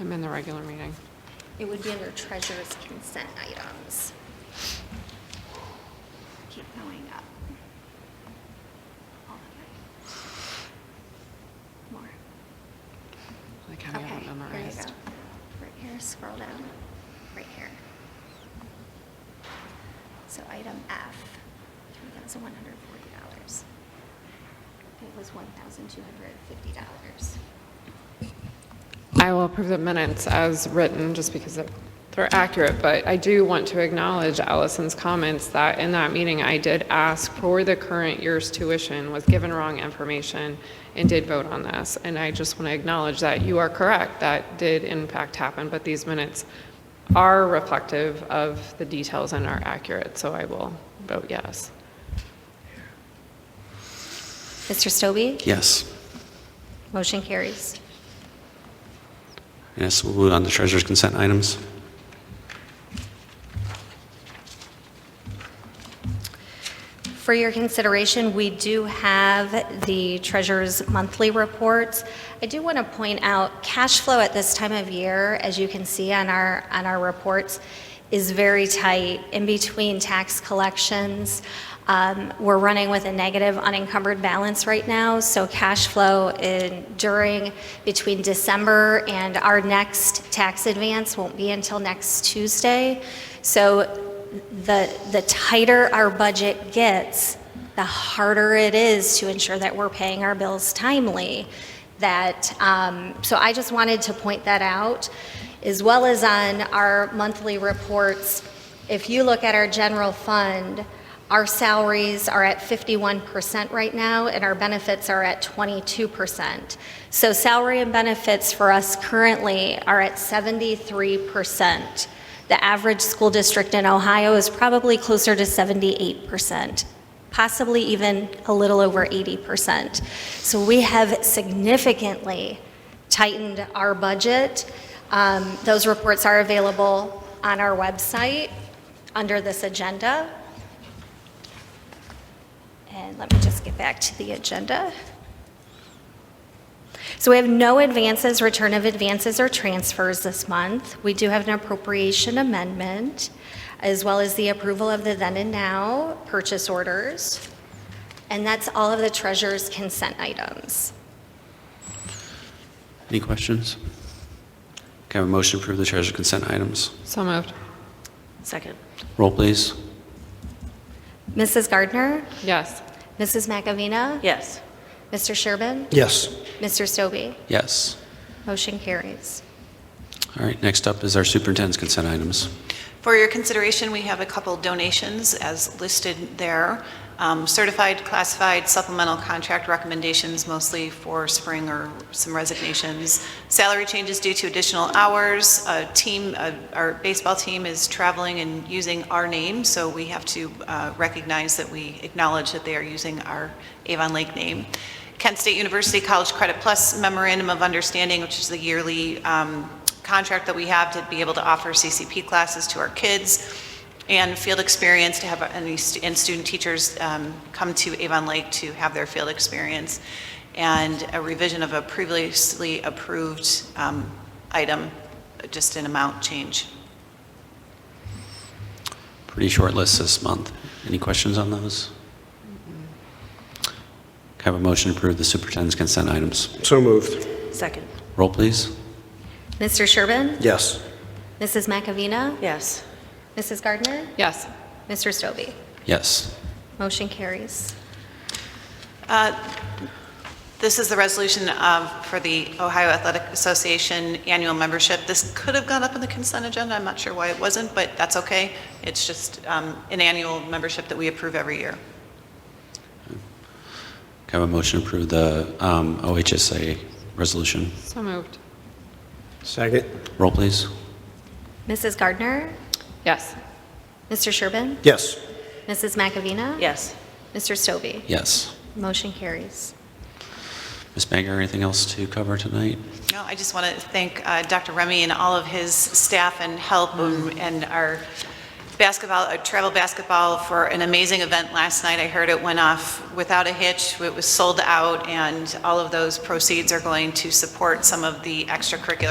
I'm in the regular meeting. It would be under treasurer's consent items. Keep going up. All the way. More. Like, how do you have Okay, it there you memorized? go. Right here, scroll down, right here. So item F, three thousand one hundred forty dollars. It was one thousand two hundred fifty dollars. I will approve the minutes as written, just because it- they're accurate, but I do want to acknowledge Allison's comments that in that meeting, I did ask for the current year's tuition, was given wrong information, and did vote on this. And I just want to acknowledge that you are correct, that did in fact happen, but these minutes are reflective of the details and are accurate, so I will vote yes. Mr. Stobie? Yes. Motion carries. Yes, we'll move on to treasurer's consent items. For your consideration, we do have the treasurer's monthly reports. I do want to point out, cash flow at this time of year, as you can see on our, on our reports, is very tight. In between tax collections, um, we're running with a negative unencumbered balance right now, so cash flow in, during, between December and our next tax advance won't be until next Tuesday. So the, the tighter our budget gets, the harder it is to ensure that we're paying our bills timely. That, um, so I just wanted to point that out, as well as on our monthly reports. If you look at our general fund, our salaries are at 51% right now, and our benefits are at 22%. So salary and benefits for us currently are at 73%. The average school district in Ohio is probably closer to 78%, possibly even a little over 80%. So we have significantly tightened our budget. Um, Those reports are available on our website under this agenda. And let me just get back to the agenda. So we have no advances, return of advances or transfers this month. We do have an appropriation amendment, as well as the approval of the then and now purchase orders. And that's all of the treasurer's consent items. Any questions? Can I have a motion to approve the treasurer's consent items? So moved. Second. Roll, please. Mrs. Gardner, Yes. Mrs. McAvina, Yes. Mr. Sherbin, Yes. Mr. Stobie. Yes. Motion carries. All right, next up is our superintendent's consent items. For your consideration, we have a couple donations as listed there. Um, Certified, classified, supplemental contract recommendations, mostly for spring or some resignations. Salary changes due to additional hours. A team, uh, our baseball team is traveling and using our name, so we have to uh, recognize that we acknowledge that they are using our Avon Lake name. Kent State University College Credit Plus Memorandum of Understanding, which is the yearly um, contract that we have to be able to offer CCP classes to our kids and field experience to have, any stu- and student teachers um, come to Avon Lake to have their field experience, and a revision of a previously approved um, item, just an amount change. Pretty short list this month. Any questions on those? Can I have a motion to approve the superintendent's consent items? So moved. Second. Roll, please. Mr. Sherbin, Yes. Mrs. McAvina, Yes. Mrs. Gardner, Yes. Mr. Stobie. Yes. Motion carries. Uh, This is the resolution of, for the Ohio Athletic Association annual membership. This could have gone up on the consent agenda, I'm not sure why it wasn't, but that's okay. It's just um, an annual membership that we approve every year. Can I have a motion to approve the um, OHSA resolution? So moved. Second. Roll, please. Mrs. Gardner, Yes. Mr. Sherbin, Yes. Mrs. McAvina, Yes. Mr. Stobie. Yes. Motion carries. Ms. Banger, anything else to cover tonight? No, I just want to thank uh, Dr. Remy and all of his staff and help and and our basketball, uh, travel basketball for an amazing event last night. I heard it went off without a hitch. It was sold out, and all of those proceeds are going to support some of the extracurricular